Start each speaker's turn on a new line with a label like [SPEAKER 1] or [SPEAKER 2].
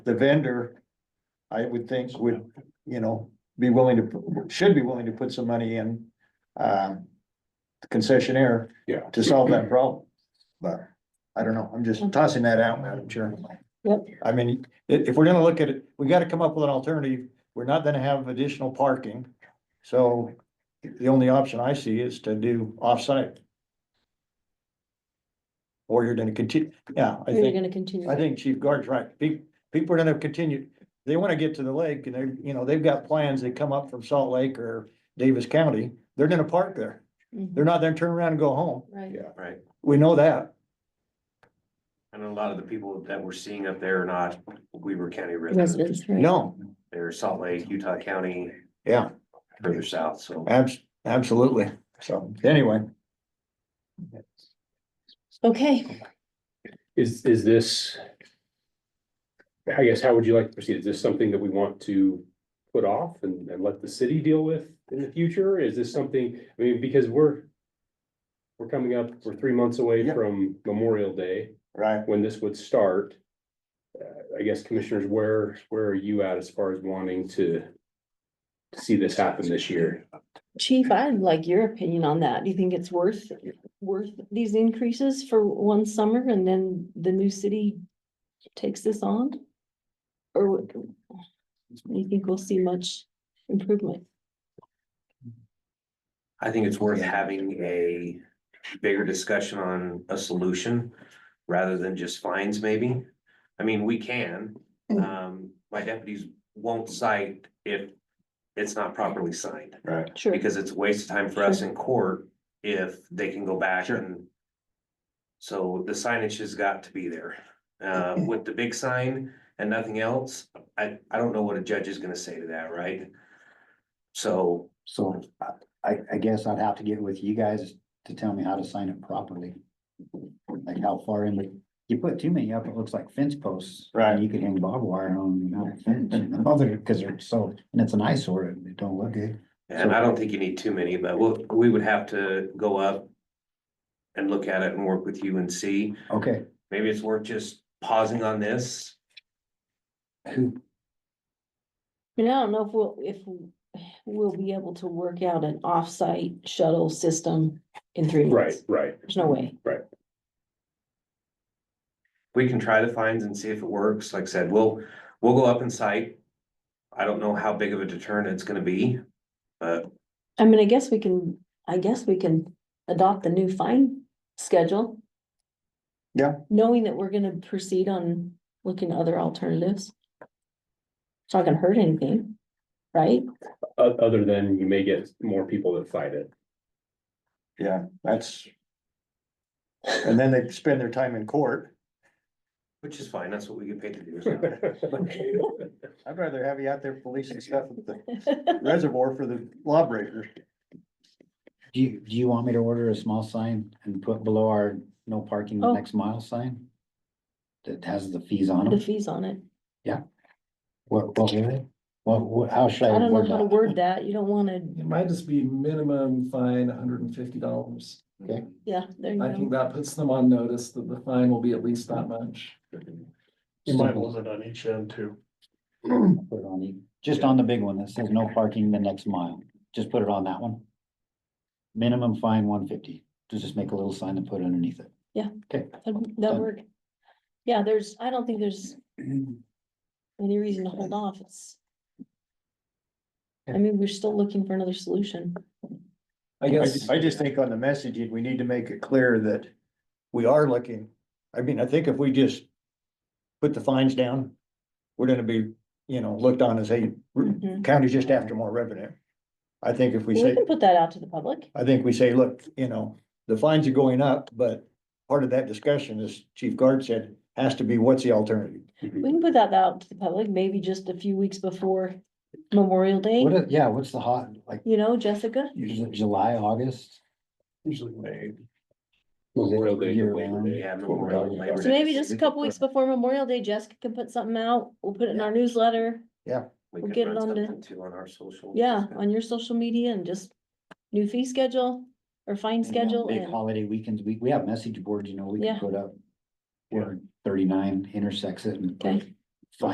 [SPEAKER 1] the vendor, I would think would, you know, be willing to, pu- should be willing to put some money in, um, the concessionaire.
[SPEAKER 2] Yeah.
[SPEAKER 1] To solve that problem. But I don't know, I'm just tossing that out, Madam Chair.
[SPEAKER 3] Yep.
[SPEAKER 1] I mean, i- if we're gonna look at it, we gotta come up with an alternative. We're not gonna have additional parking. So the only option I see is to do offsite. Or you're gonna continue, yeah, I
[SPEAKER 3] Or
[SPEAKER 1] think.
[SPEAKER 3] You're gonna continue.
[SPEAKER 1] I think Chief Guard's right. People, people are gonna continue, they wanna get to the lake and they're, you know, they've got plans, they come up from Salt Lake or Davis County, they're gonna park there.
[SPEAKER 3] Mhm.
[SPEAKER 1] They're not gonna turn around and go home.
[SPEAKER 3] Right.
[SPEAKER 2] Yeah.
[SPEAKER 4] Right,
[SPEAKER 1] We know that.
[SPEAKER 4] and a lot of the people that we're seeing up there are not Weaver County residents,
[SPEAKER 3] Residents, right.
[SPEAKER 1] No,
[SPEAKER 4] they're Salt Lake, Utah County,
[SPEAKER 1] yeah,
[SPEAKER 4] further south, so.
[SPEAKER 1] abs- absolutely. So anyway,
[SPEAKER 3] Okay,
[SPEAKER 2] Is, is this? I guess, how would you like to proceed? Is this something that we want to put off and, and let the city deal with in the future? Is this something, I mean, because we're. We're coming up, we're three months away
[SPEAKER 1] Yeah.
[SPEAKER 2] from Memorial Day,
[SPEAKER 1] right,
[SPEAKER 2] when this would start. Uh, I guess commissioners, where, where are you at as far as wanting to? to See this happen this year?
[SPEAKER 3] chief, I'd like your opinion on that. Do you think it's worth, worth these increases for one summer and then the new city takes this on? Or what- do you think we'll see much improvement?
[SPEAKER 4] I think it's worth having a bigger discussion on a solution rather than just fines maybe. I mean, we can, um, my deputies won't cite if it's not properly signed.
[SPEAKER 1] right.
[SPEAKER 3] Sure.
[SPEAKER 4] Because it's a waste of time for us in court if they can go back
[SPEAKER 1] Sure.
[SPEAKER 4] and. So the signage has got to be there, uh, with the big sign and nothing else, I, I don't know what a judge is gonna say to that, right? So,
[SPEAKER 5] So I- I, I guess I'd have to get with you guys to tell me how to sign it properly. Like how far in, but you put too many up, it looks like fence posts.
[SPEAKER 1] Right.
[SPEAKER 5] You could hang barbed wire on that fence, you know, they're, cause they're so, and it's an eyesore, it don't look good.
[SPEAKER 4] and I don't think you need too many, but we'll, we would have to go up. And look at it and work with you and see,
[SPEAKER 5] Okay,
[SPEAKER 4] maybe it's worth just pausing on this,
[SPEAKER 5] who,
[SPEAKER 3] And I don't know if we'll, if we'll be able to work out an off-site shuttle system in three
[SPEAKER 2] Right,
[SPEAKER 3] months.
[SPEAKER 2] right.
[SPEAKER 3] There's no way.
[SPEAKER 4] we can try the fines and see if it works, like I said, we'll, we'll go up in sight. I don't know how big of a deterrent it's gonna be, but
[SPEAKER 3] I mean, I guess we can, I guess we can adopt the new fine schedule.
[SPEAKER 1] Yeah.
[SPEAKER 3] Knowing that we're gonna proceed on looking at other alternatives. It's not gonna hurt anything, right?
[SPEAKER 2] O- other than you may get more people that fight it.
[SPEAKER 1] Yeah, that's. And then they spend their time in court.
[SPEAKER 4] Which is fine, that's what we get paid to do. is-
[SPEAKER 1] I'd rather have you out there policing stuff at the reservoir for the lawbreakers.
[SPEAKER 5] do you, do you want me to order a small sign and put below our no parking the
[SPEAKER 3] Oh.
[SPEAKER 5] next mile sign? That has the fees on
[SPEAKER 3] The
[SPEAKER 5] it,
[SPEAKER 3] fees on it.
[SPEAKER 5] what, what, were they? what, what, how should I?
[SPEAKER 3] I don't know
[SPEAKER 5] word
[SPEAKER 3] how to
[SPEAKER 5] that?
[SPEAKER 3] word that. You don't wanna,
[SPEAKER 6] It might just be minimum fine hundred and fifty dollars.
[SPEAKER 3] yeah, there you
[SPEAKER 6] I think
[SPEAKER 3] go.
[SPEAKER 6] that puts them on notice that the fine will be at least that much.
[SPEAKER 7] You might
[SPEAKER 5] Simple.
[SPEAKER 7] limit on each end too.
[SPEAKER 5] Put it on, e- just on the big one that says no parking the next mile, just put it on that one. Minimum fine one fifty, just make a little sign and put it underneath it.
[SPEAKER 3] That'd- That work. Yeah, there's, I don't think there's any reason to hold off. It's. I mean, we're still looking for another solution.
[SPEAKER 6] I
[SPEAKER 1] I
[SPEAKER 6] guess,
[SPEAKER 1] just, I just think on the messaging, we need to make it clear that we are looking, I mean, I think if we just put the fines down, we're gonna be, you know, looked on as a county's just after more revenue. I think if we
[SPEAKER 3] We
[SPEAKER 1] say,
[SPEAKER 3] can put that out to the public.
[SPEAKER 1] I think we say, look, you know, the fines are going up, but part of that discussion, as Chief Guard said, has to be what's the alternative?
[SPEAKER 3] We can put that out to the public, maybe just a few weeks before Memorial Day,
[SPEAKER 5] What, if- yeah, what's the hot, like,
[SPEAKER 3] you know, Jessica?
[SPEAKER 5] is it July, August?
[SPEAKER 7] Usually May.
[SPEAKER 2] Memorial Day to
[SPEAKER 5] Year
[SPEAKER 2] Labor
[SPEAKER 5] round.
[SPEAKER 2] Day.
[SPEAKER 4] Yeah, Memorial Day, Labor
[SPEAKER 3] So maybe just a couple weeks before Memorial Day, Jessica can put something out, we'll put it in our newsletter,
[SPEAKER 4] We
[SPEAKER 3] we'll
[SPEAKER 4] could
[SPEAKER 3] get
[SPEAKER 4] run
[SPEAKER 3] it on the-
[SPEAKER 4] something Too on our social.
[SPEAKER 3] yeah, on your social media and just new fee schedule or fine
[SPEAKER 5] And, you know,
[SPEAKER 3] schedule
[SPEAKER 5] Big
[SPEAKER 3] and,
[SPEAKER 5] holiday weekends, we, we have message boards, you know, we
[SPEAKER 3] Yeah.
[SPEAKER 5] can put up. Where thirty-nine intersects it and
[SPEAKER 3] Okay.